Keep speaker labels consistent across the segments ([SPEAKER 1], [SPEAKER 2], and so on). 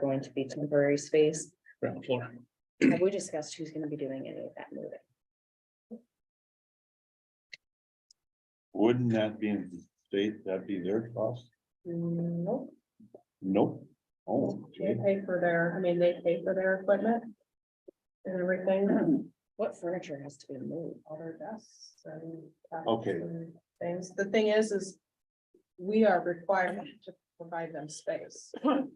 [SPEAKER 1] going to be temporary space.
[SPEAKER 2] ground floor.
[SPEAKER 1] Have we discussed who's gonna be doing any of that moving?
[SPEAKER 3] Wouldn't that be in the state, that'd be their cost?
[SPEAKER 4] Nope,
[SPEAKER 3] Nope. Oh,
[SPEAKER 4] they
[SPEAKER 3] okay.
[SPEAKER 4] pay for their, I mean, they pay for their equipment. And everything,
[SPEAKER 1] What furniture has to be moved?
[SPEAKER 4] all their desks and. tablets
[SPEAKER 3] Okay.
[SPEAKER 4] and Things, the thing is, is we are required to provide them space.
[SPEAKER 3] So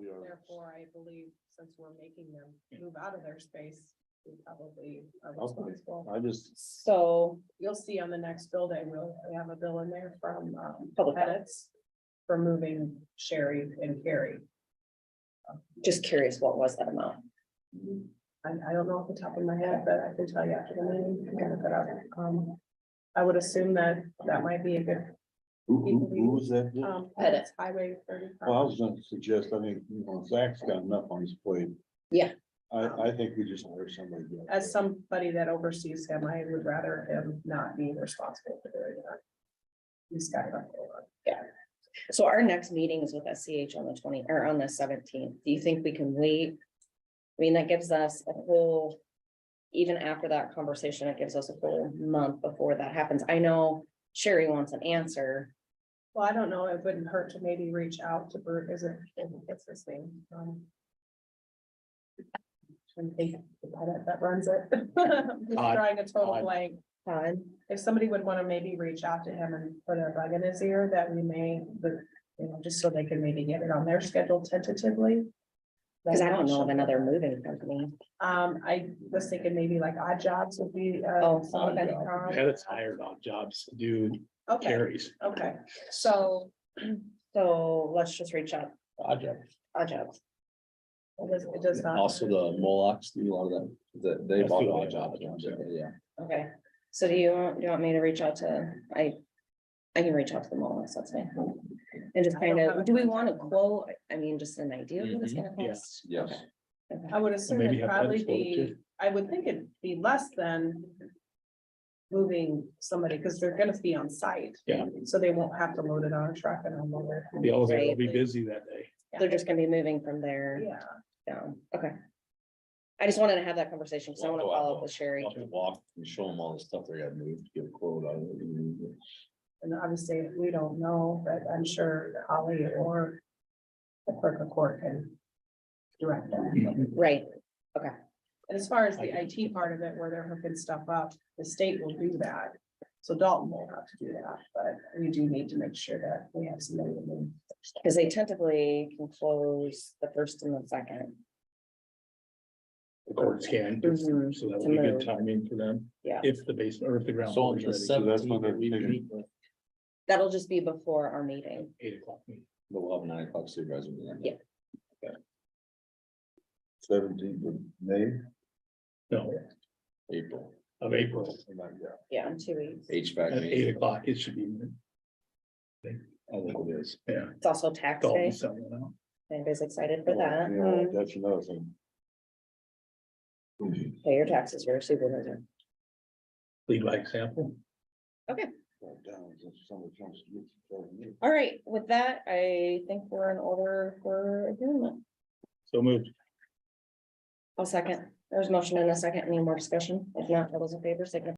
[SPEAKER 3] we are,
[SPEAKER 4] Therefore, I believe since we're making them move out of their space, we probably are
[SPEAKER 3] Okay.
[SPEAKER 4] responsible.
[SPEAKER 3] I just,
[SPEAKER 1] So,
[SPEAKER 4] You'll see on the next bill day, we'll we have a bill in there from um,
[SPEAKER 1] Public health.
[SPEAKER 4] edits for moving Sherry and Carrie.
[SPEAKER 1] just curious, what was that amount?
[SPEAKER 4] I, I don't know off the top of my head, but I can tell you after the meeting. I can look it up. Um, I would assume that that might be a good,
[SPEAKER 3] who, who, who was that? with?
[SPEAKER 4] um,
[SPEAKER 1] Edit.
[SPEAKER 4] highway thirty.
[SPEAKER 3] Well, I was gonna suggest, I think, you know, Zach's got enough on his plate.
[SPEAKER 1] Yeah.
[SPEAKER 3] I, I think we just hire somebody. to do it.
[SPEAKER 4] As somebody that oversees him, I would rather him not be responsible for doing that. He's got enough going on.
[SPEAKER 1] So our next meeting is with SCH on the twenty, or on the seventeenth. Do you think we can wait? I mean, that gives us a whole, even after that conversation, it gives us a whole month before that happens. I know Sherry wants an answer.
[SPEAKER 4] Well, I don't know, it wouldn't hurt to maybe reach out to Bert, is it, what's his name? Um, trying to think of the pilot That runs it. Just
[SPEAKER 2] Todd.
[SPEAKER 4] Drawing a total
[SPEAKER 2] Todd.
[SPEAKER 4] blank.
[SPEAKER 1] Todd?
[SPEAKER 4] If somebody would want to maybe reach out to him and put a bug in his ear that we may, but, you know, just so they can maybe get it on their schedule tentatively.
[SPEAKER 1] Cause I don't know of another moving company.
[SPEAKER 4] Um, I was thinking maybe like odd jobs would be. uh,
[SPEAKER 1] Oh,
[SPEAKER 4] something
[SPEAKER 3] Odd
[SPEAKER 4] that,
[SPEAKER 3] Job.
[SPEAKER 4] um,
[SPEAKER 2] Edits hired on jobs to do
[SPEAKER 4] Okay,
[SPEAKER 2] carries.
[SPEAKER 4] okay, so
[SPEAKER 1] So let's just reach out,
[SPEAKER 2] Project.
[SPEAKER 1] odd jobs.
[SPEAKER 4] it does, it does not.
[SPEAKER 5] Also the Molochs, do a lot of them, that they
[SPEAKER 2] That's
[SPEAKER 5] bought.
[SPEAKER 2] the
[SPEAKER 5] them,
[SPEAKER 2] odd job
[SPEAKER 5] yeah,
[SPEAKER 2] ones, yeah.
[SPEAKER 5] Yeah,
[SPEAKER 1] Okay, so do you, want do you want me to reach out to, I, I can reach out to them all, so that's fine. And just kind of, do we want to quote, I mean, just an idea of what it's gonna
[SPEAKER 2] Mm-hmm. yeah.
[SPEAKER 1] cost?
[SPEAKER 5] yes.
[SPEAKER 1] Okay.
[SPEAKER 4] I would assume
[SPEAKER 2] maybe
[SPEAKER 4] it'd
[SPEAKER 2] have
[SPEAKER 4] probably
[SPEAKER 2] edits for it
[SPEAKER 4] be,
[SPEAKER 2] too.
[SPEAKER 4] I would think it'd be less than. Moving somebody, because they're gonna be on site.
[SPEAKER 2] Yeah.
[SPEAKER 4] So they won't have to load it on a truck and unload it.
[SPEAKER 2] The elevator will be
[SPEAKER 1] Right.
[SPEAKER 2] busy that day.
[SPEAKER 1] They're just gonna be moving from there
[SPEAKER 4] Yeah,
[SPEAKER 1] down, okay. I just wanted to have that conversation, because I want to
[SPEAKER 2] Oh,
[SPEAKER 5] Well, well,
[SPEAKER 1] follow up
[SPEAKER 5] well,
[SPEAKER 1] with Sherry.
[SPEAKER 5] Up and walk and show them all the stuff they got moved, give a quote on it. and then-
[SPEAKER 4] and obviously, we don't know, but I'm sure Holly or. The clerk of court can. Direct them.
[SPEAKER 1] Right,
[SPEAKER 4] And as far as the IT part of it, where they're hooking stuff up, the state will do that. So Dalton will have to do that, but we do need to make sure that we have somebody. to move.
[SPEAKER 1] because they tentatively can close the first and the second.
[SPEAKER 2] The courts can,
[SPEAKER 1] Mhm,
[SPEAKER 2] so that
[SPEAKER 1] to
[SPEAKER 2] would be
[SPEAKER 1] move.
[SPEAKER 2] good timing for them.
[SPEAKER 1] Yeah.
[SPEAKER 2] If the basement or if the ground.
[SPEAKER 5] So
[SPEAKER 2] floor
[SPEAKER 5] on
[SPEAKER 2] is
[SPEAKER 5] the
[SPEAKER 2] ready.
[SPEAKER 3] So that's what
[SPEAKER 5] seventeenth,
[SPEAKER 3] they're
[SPEAKER 5] we
[SPEAKER 3] figuring.
[SPEAKER 5] meet with,
[SPEAKER 1] That'll just be before our meeting.
[SPEAKER 2] Eight o'clock. meeting.
[SPEAKER 5] but we'll have a nine o'clock supervisor meeting.
[SPEAKER 1] Yeah.
[SPEAKER 3] Seventeenth of May.
[SPEAKER 2] No,
[SPEAKER 5] April,
[SPEAKER 2] of April
[SPEAKER 3] something like that.
[SPEAKER 1] Yeah, in two weeks.
[SPEAKER 5] HVAC
[SPEAKER 2] at eight
[SPEAKER 5] meeting.
[SPEAKER 2] o'clock, it should be.
[SPEAKER 5] I think it is.
[SPEAKER 2] Yeah.
[SPEAKER 1] It's also tax
[SPEAKER 2] Dalton
[SPEAKER 1] day.
[SPEAKER 2] selling it Oh, out.
[SPEAKER 1] Anybody's excited for
[SPEAKER 3] You know,
[SPEAKER 1] that? Mm.
[SPEAKER 3] That's another thing.
[SPEAKER 1] Pay your taxes, you're a supervisor.
[SPEAKER 2] Lead by example.
[SPEAKER 3] Right down, since someone comes to get you.
[SPEAKER 1] All right, with that, I think we're in order for adjournment.
[SPEAKER 2] So moved.
[SPEAKER 1] I'll second. There's motion and a second. Any more discussion? If not, all those in favor, signify